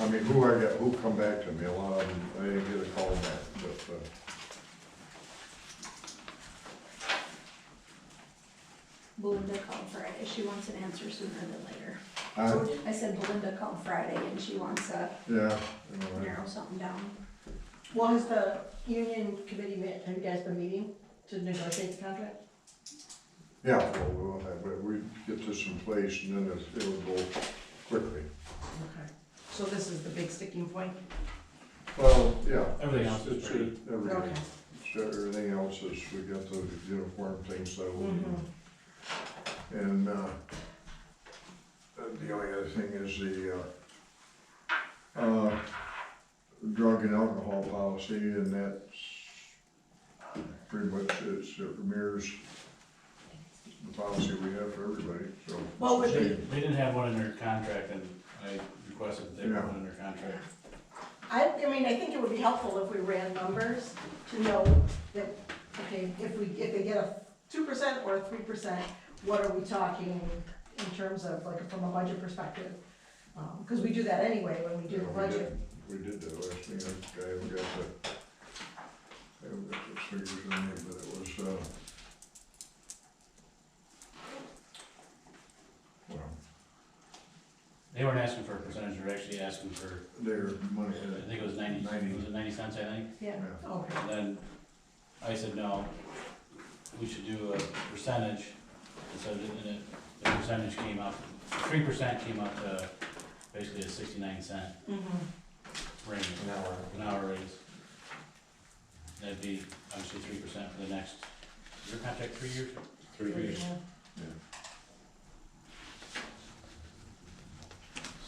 I mean, who I got, who come back to me, a lot of them, I didn't get a call back, but, uh, Belinda called Friday, she wants an answer sooner than later. I, I said Belinda called Friday and she wants to yeah, you know, narrow something down. Well, has the union committee met, have you guys been meeting to negotiate the contract? yeah, well, we'll have, but we get this in place and then it's- it'll go quickly. Okay. So this is the big sticking point? Well, yeah. Everything it's- else is it's- pretty- Everything, Okay. it's- everything else is, we got the uniform thing settled. Mhm. And, uh, and the only other thing is the, uh, uh, drug and alcohol policy, and that's pretty much, it's, it mirrors the policy we have for everybody, so. What would They be, they didn't have one in their contract, and I requested that they Yeah. put one in their contract. I, I mean, I think it would be helpful if we ran numbers to know that, okay, if we, if they get a two percent or a three percent, what are we talking in terms of, like, from a budget perspective? Um, cause we do that anyway when we do the Yeah, we budget. did- We did that last year, I haven't got the, I haven't got those figures on here, but it was, uh, well, They weren't asking for a percentage, they were actually asking for, their money, I uh, think it was ninety, Ninety. was it ninety cents, I think? Yeah, yeah. okay, And then I said, no, we should do a percentage, and so the, and it- the percentage came up, three percent came up to basically a sixty-nine cent mhm, range, an hour. an hour raise. That'd be obviously three percent for the next, your contract three years? Three yeah. years.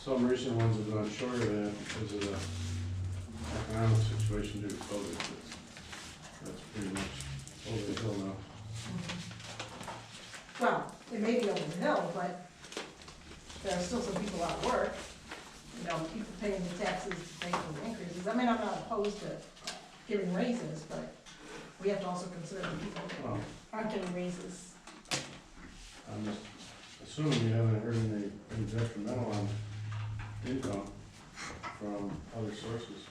Some recent ones have gone short of that because of the economic situation due to COVID. but That's pretty much over the hill now. Well, it may be over the hill, but there are still some people out of work. You know, people paying the taxes, paying the increases. I mean, I'm not opposed to giving raises, but we have to also consider the people that Well, aren't getting raises. I'm just assuming you haven't heard any any detrimental on income from other sources.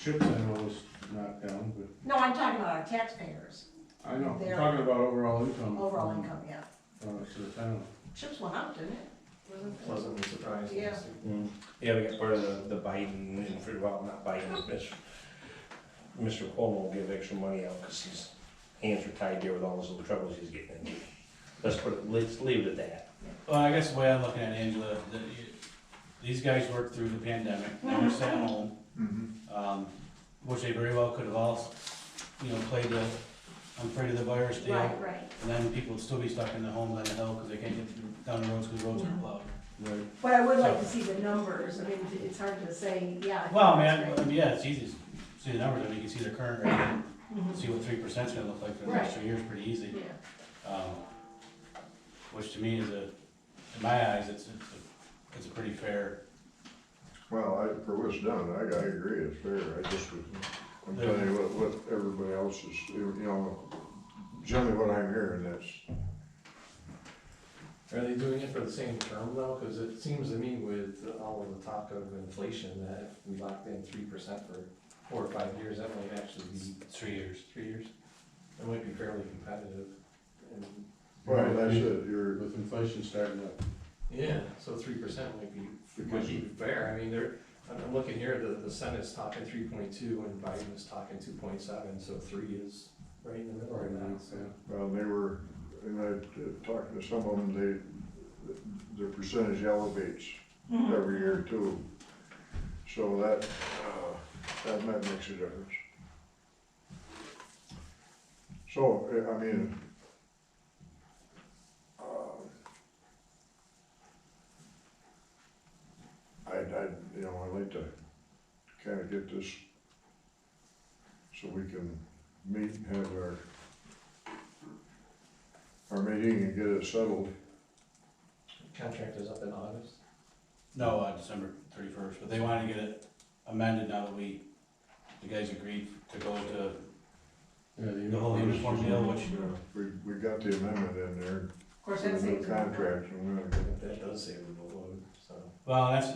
Chips I know was knocked down, but No, I'm talking about our taxpayers, I know, I'm There. talking about overall income. overall from- income, yeah. Uh, to the town. Chips went up, didn't it? Wasn't it? Pleasantly surprised. Yeah. Yeah, we got part of the, the Biden, and for- well, not Biden, Miss, Mr. Cuomo will give extra money out because his hands are tied there with all those little troubles he's getting into. Let's put, it- let's leave it at that. Well, I guess the way I'm looking at it, Angela, that you, these guys worked through the pandemic, they were sat home, Mhm. um, which they very well could have all, you know, played the, I'm afraid of the virus deal. Right, right. And then people would still be stuck in the homes on the hill, cause they can't get through- down the roads, cause roads are plowed. Right. But I would like to see the numbers. I mean, it's hard to say, yeah. I think Well, I mean, that's I- I great. mean, yeah, it's easy to see the numbers, I mean, you can see their current rate, and Mhm. see what three percent's gonna look like for the next three years, pretty easy. Yeah. Um, which to me is a, in my eyes, it's, it's a, it's a pretty fair, Well, I, for what's done, I, I agree, it's fair, I just was, I'm telling you what, what everybody else is, you know, generally what I'm hearing, that's, Are they doing it for the same term though? Because it seems to me with all of the talk of inflation, that if we locked in three percent for four or five years, that might actually be three years. three years. That might be fairly competitive. And, well, that's it, you're, With inflation starting up. yeah, so three percent might be, might be fair. I mean, they're, I'm I'm looking here, the, the Senate's talking three point two and Biden is talking two point seven, so three is right in the middle right now, so. Well, Uh, they were, and I talked to some of them, they, their percentage elevates every year too. So that, uh, that might makes a difference. So, I- I mean, um, I'd, I'd, you know, I'd like to kind of get this so we can meet and have our our meeting and get it settled. Contract is up in August. No, uh, December thirty-first, but they wanted to get it amended now that we, the guys agreed to go to Yeah, the the whole uniform uniform. deal, which, We, we got the amendment in there, Of course, the that's. new contract, and we're gonna That does say removal, so. well, that's,